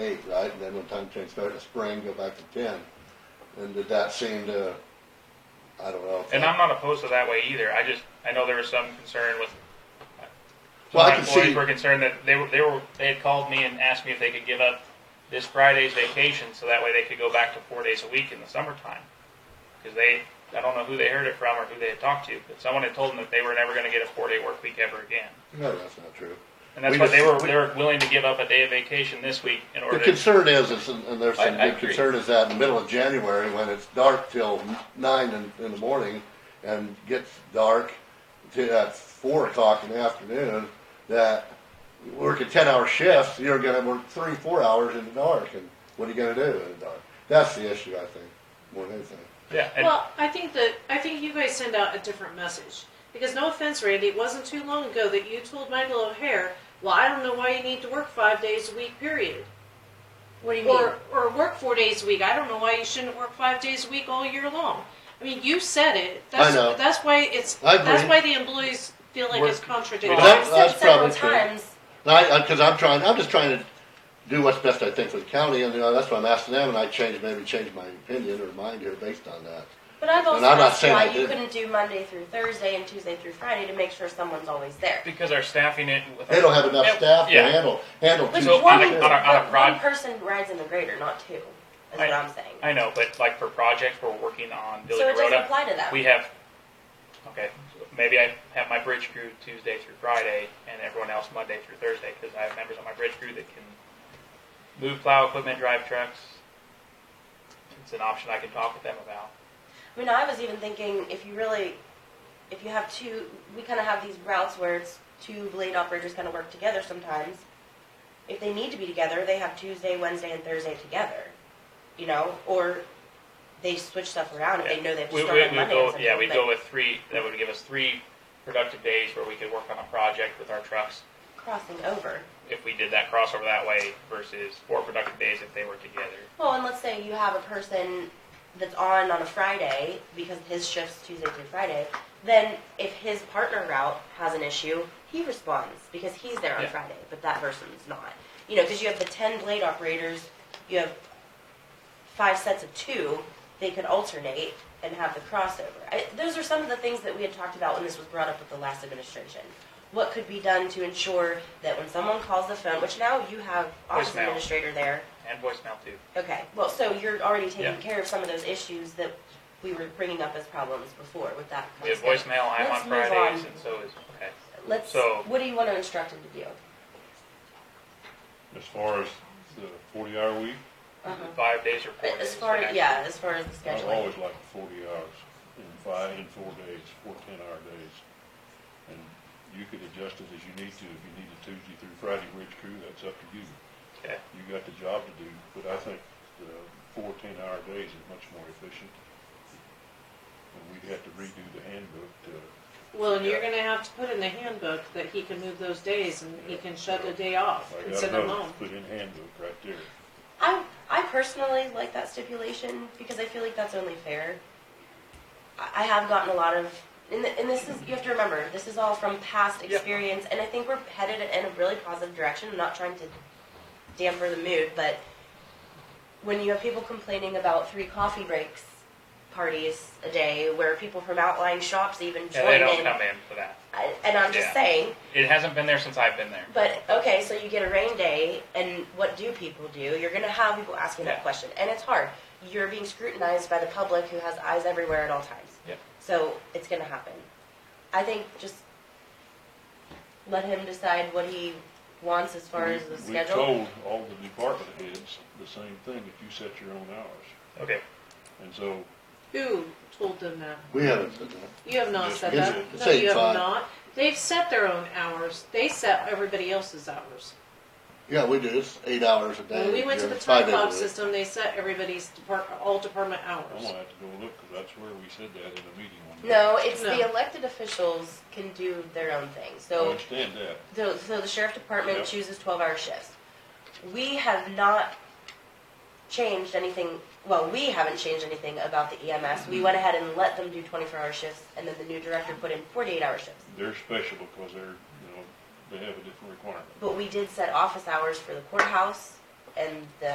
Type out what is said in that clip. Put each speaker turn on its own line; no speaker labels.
eight, right? And then when time change started to spring, go back to ten. And did that seem to, I don't know. if
And
that-
I'm not opposed to that way either. I just I know there was some concern with. Some
Well, I
of my
can
employees
see-
were concerned that they were they were they had called me and asked me if they could give up this Friday's vacation so that way they could go back to four days a week in the summertime because they I don't know who they heard it from or who they had talked to but someone had told them that they were never going to get a four day work week ever again
No, that's not true.
and that's
We
what
just-
they were
we-
they were willing to give up a day of vacation this week in
The
order to
concern is, is, and and there's
I-
some
I
big
agree.
concern is that in the middle of January, when it's dark till nine in, in the morning and gets dark to at four o'clock in the afternoon, that you work a ten hour shift, you're gonna work three, four hours in the dark, and what are you gonna do in the dark? That's the issue, I think, more than anything.
yeah and
Well, I think that I think you guys send out a different message. Because no offense, Randy, it wasn't too long ago that you told Michael O'Hare, "Well, I don't know why you need to work five days a week, period,
What do you mean?
or or work four days a week. I don't know why you shouldn't work five days a week all year long." I mean, you said it. That's,
know.
That's why it's.
I
That's
agree.
why the employees feel like it's
Work-
contradictory.
Well,
that-
I've
that's
said several
probably true.
times.
And I, because I'm trying, I'm just trying to do what's best I think for the county, and you know, that's what I'm asking them, and I change, maybe change my opinion or mind here based on that.
But I've also
I'm not
asked
saying I
why you
didn't.
couldn't do Monday through Thursday and Tuesday through Friday to make sure someone's always there.
because our staffing it with
They don't have enough staff to
yeah.
handle, handle two
Which
So, on
one,
a- on a- on a
but
prod-
one person rides in the grader, not two, is
I-
what I'm saying.
I know, but like for projects we're working on building
so
a
it doesn't
road up.
apply to that.
We have, okay, maybe I have my bridge crew Tuesday through Friday and everyone else Monday through Thursday because I have members on my bridge crew that can move plow equipment, drive trucks. It's an option I can talk with them about.
I mean, I was even thinking if you really, if you have two, we kind of have these routes where it's two blade operators kind of work together sometimes. If they need to be together, they have Tuesday, Wednesday, and Thursday together, you know, or they switch stuff around if they know they have to
We,
start
we,
on
we
Monday. or
go,
something,
yeah, we
but-
go with three, that would give us three productive days where we could work on a project with our trucks
crossing over.
if we did that crossover that way versus four productive days if they were together.
Well, and let's say you have a person that's on on a Friday because his shift's Tuesday through Friday. Then if his partner route has an issue, he responds because he's there on
Yeah.
Friday, but that person's not. You know, because you have the ten blade operators, you have five sets of two. They could alternate and have the crossover. I, those are some of the things that we had talked about when this was brought up with the last administration. What could be done to ensure that when someone calls the phone, which now you have office
Voicemail.
administrator there,
And voicemail too.
Okay, well, so you're already
Yeah.
taking care of some of those issues that we were bringing up as problems before with that.
We have
kind of stuff.
voicemail, I'm
Let's
on
move
Fridays
on.
and so is, okay.
Let's,
so-
what do you want to instruct him to do?
As far as the forty hour week,
Uh-huh.
Five days or four days.
As far,
the
as
next
yeah, as far as the
I've
scheduling.
always liked the forty hours in five, in four days, four ten hour days. And you could adjust it as you need to. If you need a Tuesday through Friday bridge crew, that's up to you.
Okay.
You got the job to do, but I think the four ten hour days is much more efficient. And we'd have to redo the handbook to,
Well, and you're going to have to put in the handbook that he can move those days and he can shut a day off
I
and
got
send them
another,
home.
put in handbook right there.
I, I personally like that stipulation because I feel like that's only fair. I, I have gotten a lot of, and, th- and this is, you have to remember, this is all from past experience, and I think we're headed in a really positive direction. I'm not trying to damper the mood, but when you have people complaining about three coffee breaks parties a day where people from outlying shops even
And they
join
don't
in,
come in for that.
I, and I'm just
Yeah.
saying,
It hasn't been there since I've been there.
but okay, so you get a rain day, and what do people do? You're going to have people asking
Yeah.
that question, and it's hard. You're being scrutinized by the public who has eyes everywhere at all times.
Yep.
So it's going to happen. I think just let him decide what he wants as far
We-
as the
We
schedule.
told all the department heads the same thing, if you set your own hours.
Okay.
And so
Who told them that?
We haven't said that.
You have not
Just
said
is
that.
it?
No,
Say
you have
five.
not. They've set their own hours. They set everybody else's hours.
Yeah, we do, it's eight hours a day.
When we went to the
during
time
five days a
clock
week.
system, they set everybody's depart, all department
I'm
hours.
gonna have to go look, cause that's where we said that in a meeting one day.
No, it's
No.
the elected officials can do their own thing.
I
So
understand that.
So, so the sheriff department
Yeah.
chooses twelve-hour shifts. We have not changed anything. Well, we haven't changed anything about the EMS. We went ahead and let them do twenty-four hour shifts, and then the new director put in forty-eight hour shifts.
They're special because they're, you know, they have a different requirement.
But we did set office hours for the courthouse, and the